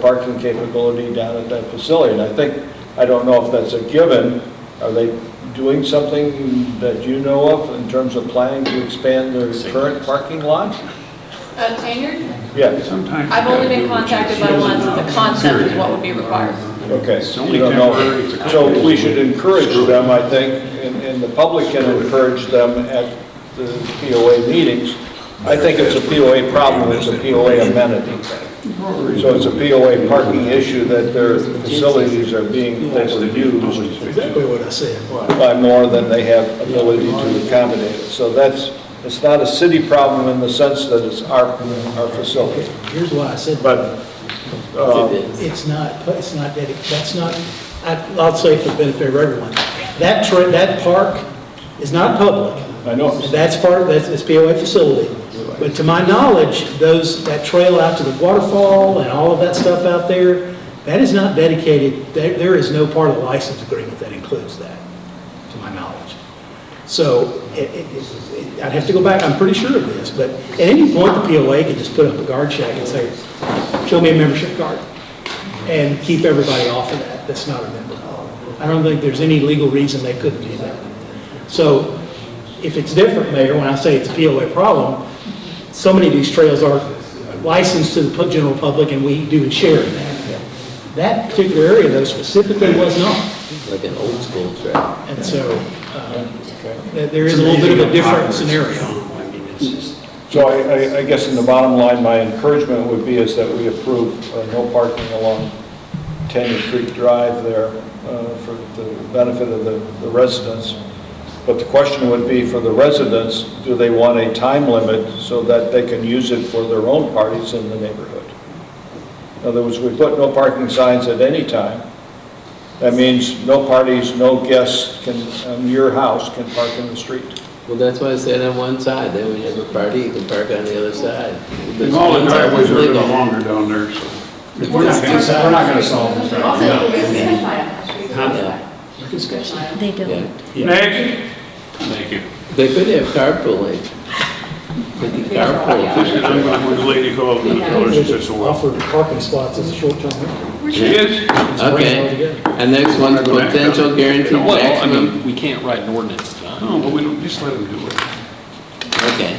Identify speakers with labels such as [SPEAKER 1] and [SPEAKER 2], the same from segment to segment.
[SPEAKER 1] parking capability down at that facility. And I think, I don't know if that's a given, are they doing something that you know of in terms of planning to expand their current parking lot?
[SPEAKER 2] Uh, Tanyard,
[SPEAKER 1] Yes,
[SPEAKER 3] Sometimes.
[SPEAKER 2] I've only been contacted by once, the concept is what would be required.
[SPEAKER 1] okay.
[SPEAKER 3] It's only
[SPEAKER 1] You don't know.
[SPEAKER 3] temporary, it's a-
[SPEAKER 1] So we should encourage them, I think, and, and the public can encourage them at the POA meetings. I think it's a POA problem, it's a POA amenity. So it's a POA parking issue that their facilities are being overused
[SPEAKER 4] Exactly what I said.
[SPEAKER 1] by more than they have ability to accommodate. So that's, it's not a city problem in the sense that it's our, our facility.
[SPEAKER 4] Here's why I said,
[SPEAKER 1] But, uh,
[SPEAKER 4] it's not, it's not, dedic- that's not, I- I'll say for the benefit of everyone, that, tra- that park is not public.
[SPEAKER 1] I know,
[SPEAKER 4] And that's part, of that's it's POA facility. But to my knowledge, those, that trail out to the waterfall and all of that stuff out there, that is not dedicated, there, there is no part of the license agreement that includes that, to my knowledge. So it, it- it, I'd have to go back, I'm pretty sure of this, but at any point, the POA could just put up a guard check and say, show me a membership card, and keep everybody off of that, that's not a member. I don't think there's any legal reason they couldn't do that. So if it's different, Mayor, when I say it's a POA problem, so many of these trails are licensed to the pu- general public, and we do share in that. That particular area, though, specifically was not.
[SPEAKER 5] like an old school track.
[SPEAKER 4] And so, um, th- there is a little bit of a different scenario.
[SPEAKER 1] so I, I- I guess in the bottom line, my encouragement would be is that we approve uh, no parking along Tanya Creek Drive there uh, for the benefit of the the residents. But the question would be for the residents, do they want a time limit so that they can use it for their own parties in the neighborhood? In other words, we put no parking signs at any time. That means no parties, no guests can, um, your house can park in the street.
[SPEAKER 5] Well, that's why I said on one side, then when you have a party, you can park on the other side.
[SPEAKER 3] And all the
[SPEAKER 5] One side
[SPEAKER 3] driveways
[SPEAKER 5] is
[SPEAKER 3] are a little
[SPEAKER 5] legal.
[SPEAKER 3] longer down there, so.
[SPEAKER 6] We're not gonna, sol- we're not gonna solve this problem.
[SPEAKER 2] Also,
[SPEAKER 6] no.
[SPEAKER 2] it's gonna
[SPEAKER 7] They don't.
[SPEAKER 5] Yeah.
[SPEAKER 3] Next. Thank you.
[SPEAKER 5] They could have carpooling. But the
[SPEAKER 3] This is, I'm
[SPEAKER 5] carpool,
[SPEAKER 3] gonna, with the lady called, and tell her she says, well.
[SPEAKER 4] Offer parking spots as a short-term rental.
[SPEAKER 3] She is.
[SPEAKER 5] okay. And next one, potential guaranteed
[SPEAKER 8] Well, I
[SPEAKER 5] maximum,
[SPEAKER 8] mean, we can't write an ordinance tonight.
[SPEAKER 3] No, but we don't, just let them do it.
[SPEAKER 5] okay.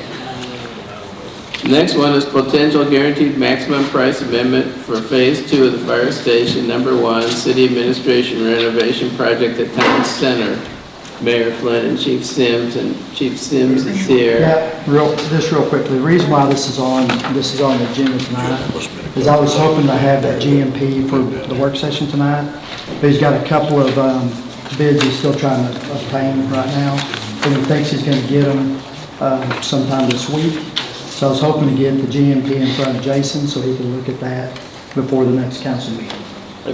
[SPEAKER 5] Next one is potential guaranteed maximum price amendment for Phase Two of the fire station, number one, city administration renovation project at Town Center. Mayor Flynn and Chief Sims, and Chief Sims is here.
[SPEAKER 9] Yeah, real, just real quickly, the reason why this is on, this is on the agenda tonight is I was hoping to have that GMP for the work session tonight. But he's got a couple of um, bids he's still trying to obtain right now, and he thinks he's going to get them um, sometime this week. So I was hoping to get the GMP in front of Jason so he can look at that before the next council meeting.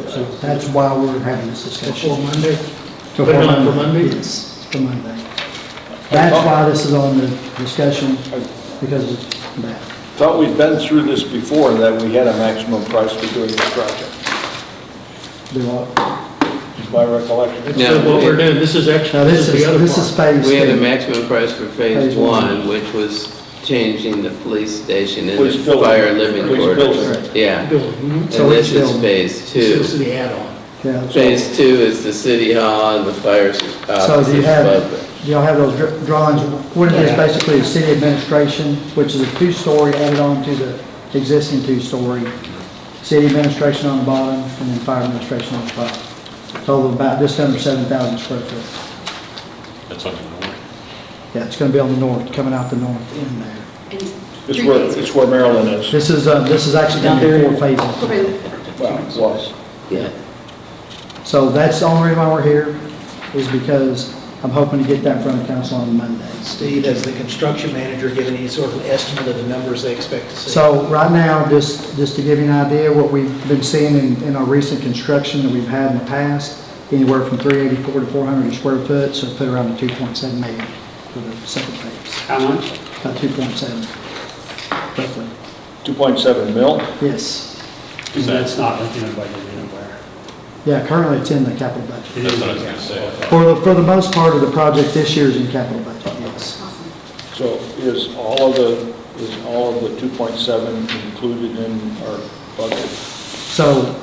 [SPEAKER 9] So that's why we're having this discussion.
[SPEAKER 4] Before Monday.
[SPEAKER 9] To
[SPEAKER 4] Put it on for Monday?
[SPEAKER 9] Yes, for Monday. That's why this is on the discussion, because of that.
[SPEAKER 1] Thought we'd been through this before, that we had a maximum price for doing this project,
[SPEAKER 9] There are-
[SPEAKER 1] is my recollection.
[SPEAKER 5] Yeah.
[SPEAKER 4] So what we're doing, this is
[SPEAKER 9] Now,
[SPEAKER 4] actually,
[SPEAKER 9] this is,
[SPEAKER 4] the other
[SPEAKER 9] this is
[SPEAKER 4] part.
[SPEAKER 9] phase
[SPEAKER 5] We had a
[SPEAKER 9] two.
[SPEAKER 5] maximum price for phase
[SPEAKER 9] Phase one.
[SPEAKER 5] one, which was changing the police station and
[SPEAKER 1] Police
[SPEAKER 5] the
[SPEAKER 1] building.
[SPEAKER 5] fire living
[SPEAKER 1] Police
[SPEAKER 5] quarters.
[SPEAKER 1] building.
[SPEAKER 5] Yeah, and
[SPEAKER 4] Building.
[SPEAKER 9] So
[SPEAKER 5] this
[SPEAKER 9] it's
[SPEAKER 5] is
[SPEAKER 9] building.
[SPEAKER 5] phase
[SPEAKER 4] This
[SPEAKER 5] two.
[SPEAKER 4] is the add-on.
[SPEAKER 9] Yeah, so-
[SPEAKER 5] Phase two is the city hall and the fire uh, s-
[SPEAKER 9] So do you
[SPEAKER 5] offices
[SPEAKER 9] have,
[SPEAKER 5] above it.
[SPEAKER 9] do y'all have those dr- drawings? What it is basically is city administration, which is a two-story added on to the existing two-story. City administration on the bottom and then fire administration on the top. Total of about just under 7,000 square foot.
[SPEAKER 8] That's on the north.
[SPEAKER 9] Yeah, it's going to be on the north, coming out the north in there.
[SPEAKER 1] It's where, it's where Maryland is.
[SPEAKER 9] This is, uh, this is actually down there in four phases.
[SPEAKER 1] Well, it was.
[SPEAKER 5] Yeah.
[SPEAKER 9] So that's the only reason why we're here, is because I'm hoping to get that in front of council on Monday.
[SPEAKER 4] Steve, as the construction manager, give any sort of estimate of the numbers they expect to see?
[SPEAKER 9] So right now, just, just to give you an idea, what we've been seeing in, in our recent construction that we've had in the past, anywhere from 384 to 400 a square foot, so put around the 2.7 million for the second phase,
[SPEAKER 3] How much?
[SPEAKER 9] about 2.7 roughly.
[SPEAKER 1] 2.7 mil?
[SPEAKER 9] Yes.
[SPEAKER 6] Because that's not looking at budget anywhere.
[SPEAKER 9] Yeah, currently it's in the capital budget.
[SPEAKER 6] It is
[SPEAKER 8] That's what I was gonna say. I thought-
[SPEAKER 9] For the, for the most part of the project this year is in capital budget, yes.
[SPEAKER 1] So is all of the, is all of the 2.7 included in our budget?
[SPEAKER 9] So